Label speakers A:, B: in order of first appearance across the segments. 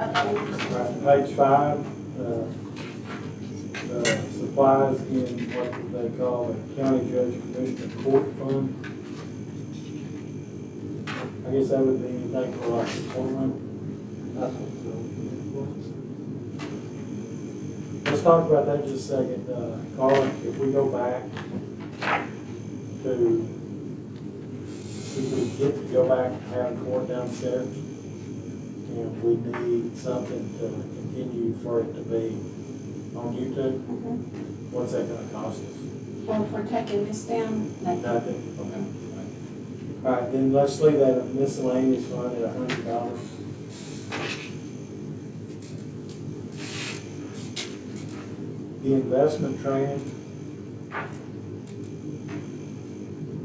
A: Page five, uh, uh, supplies in what they call the county judge commissioner court fund. I guess that would be anything for like the courtroom. Let's talk about that just a second, uh, Carla, if we go back to, if we get to go back and have court downstairs, and we need something to continue for it to be on YouTube,
B: Mhm.
A: what's that gonna cost us?
B: Well, if we're taking this down, like,
A: Nothing, okay. All right, then let's leave that miscellaneous fund at a hundred dollars. The investment training,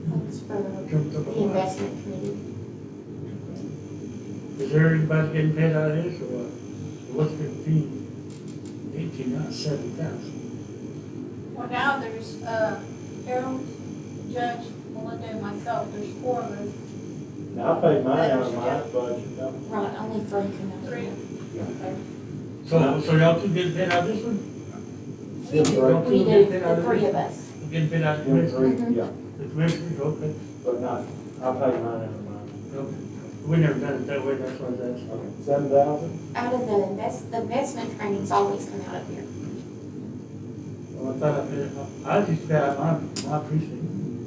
B: that's for the
C: Jumped up a lot.
B: investment committee.
C: Is there anybody getting paid out of this or what? What's fifteen, eighteen, not seven thousand?
D: Well, now there's, uh, Harold, Judge, Melinda, and myself, there's four of us,
A: now I paid mine out of my budget, no?
B: Right, only three can do
D: three.
B: it. Okay.
C: So, so y'all two getting paid out of this one?
B: We do, we do, the three of us.
C: You Getting paid out of the
A: Them
C: commissioner?
A: three, yeah,
C: The commissioner, okay,
A: but not, I paid mine out of mine.
C: okay. We never done it that way, that's why I was asking.
A: Okay, seven thousand?
B: Out of the invest, the investment trainings always come out of here.
C: Well, Oh, I thought I paid it, off. I just paid out my, my precinct.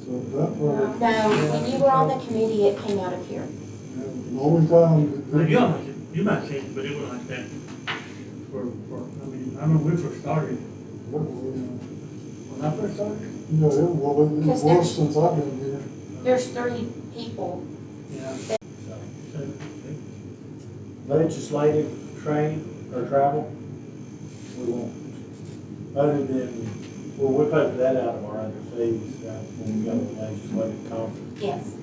E: So that was,
B: No, when you were on the committee, it came out of here.
E: the only time.
C: Well, you might, you might say, but it was like that for, for, I mean, I remember we first started,
E: No,
C: when I first started.
E: it was, it
B: Yes, sir.
E: was since I've been here.
B: There's three people.
C: Yeah.
A: So,
C: So,
A: Legislative train or travel? We won't. Other than, well, we paid for that out of our other fees, right, when we go to legislative conference.
B: Yes.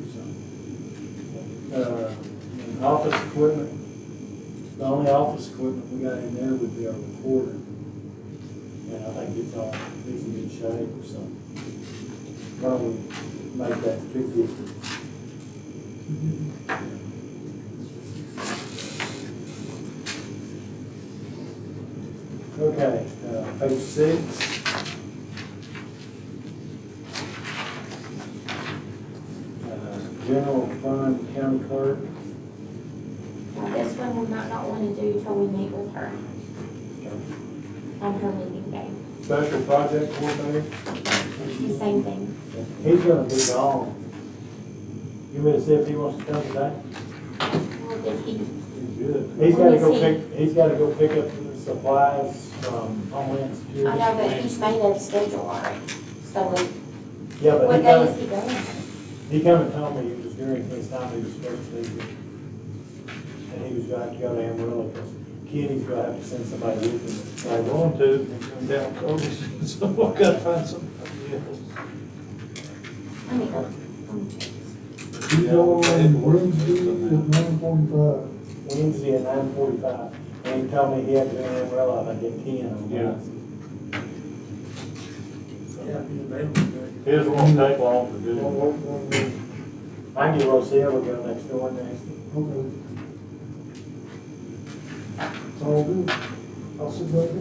A: Uh, and office equipment, the only office equipment we got in there would be our recorder. And I think it's all, it's in good shape, so probably make that two fifty. Okay, uh, page six. Uh, General fund county clerk.
B: Now, this one we might not want to do till we meet with her
A: uh,
B: on her meeting day.
A: Special project coordinator,
B: It's the same thing.
A: he's gonna be gone. You may see if he wants to come today.
B: Well, did he,
A: He's gotta go
B: When
A: pick, he's gotta go pick up some supplies from Homeland Security.
B: I know, but he's made a schedule already. So like,
A: Yeah, but
B: what
A: he
B: day
A: kinda,
B: is he going?
A: he kinda told me it was during his time he was supposed to be here. And he was gonna have to go to Amarillo, cause Kenny's gonna have to send somebody with him.
F: I want to, and come down, cold, so I gotta find somebody else.
B: Let me go. Um,
E: We go on Wednesday
A: Wednesday
E: at nine forty-five.
A: at nine forty-five, and he told me he had to be in Amarillo, I think at ten on
F: Yeah.
A: Wednesday.
C: Yeah, he's available.
F: His won't take long to
E: Don't
F: do.
E: work on that.
A: I can get Rosie, we'll go next door next.
E: Okay. It's all good. I'll sit back up.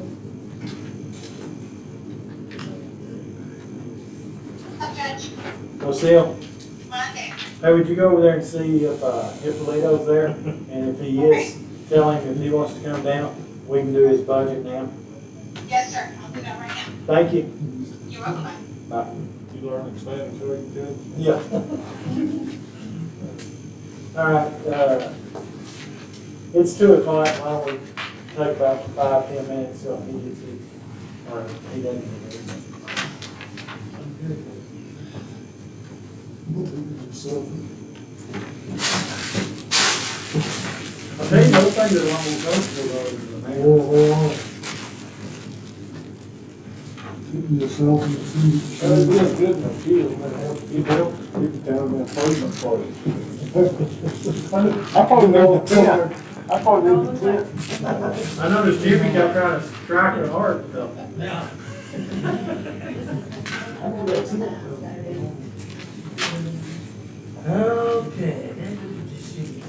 G: Judge,
A: Rosie,
G: Monday.
A: hey, would you go over there and see if, uh, if Leto's there? And if he is, tell him if he wants to come down, we can do his budget now.
G: Yes, sir. I'll do that right now.
A: Thank you.
G: You're welcome.
F: You learn explanatory, Judge?
A: Yeah. All right, uh, it's two o'clock, why don't we take about five, ten minutes, so he gets it, or he doesn't get it.
E: Look at yourself.
A: I tell you, those things are a lot more comfortable though than the
E: Whoa, whoa, whoa. Look at yourself and see.
F: That's good, good, and appeal, but help, you help, you can tell them in person for you. I probably know, yeah, I probably know. the-
A: I noticed Jimmy got trying to strike it hard though.
C: Okay.